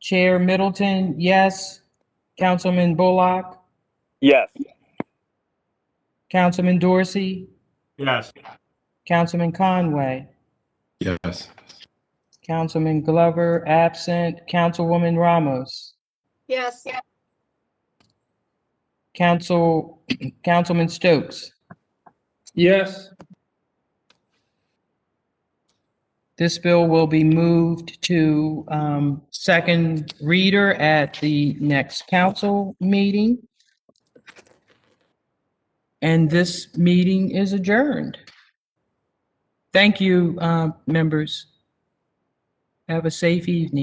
Chair Middleton, yes. Councilman Bullock, Yes. Councilman Dorsey, Yes. Councilman Conway, Yes. Councilman Glover, absent. Councilwoman Ramos, Yes. Council, Councilman Stokes. Yes. This bill will be moved to um, second reader at the next council meeting. And this meeting is adjourned. Thank you, uh, members. Have a safe evening.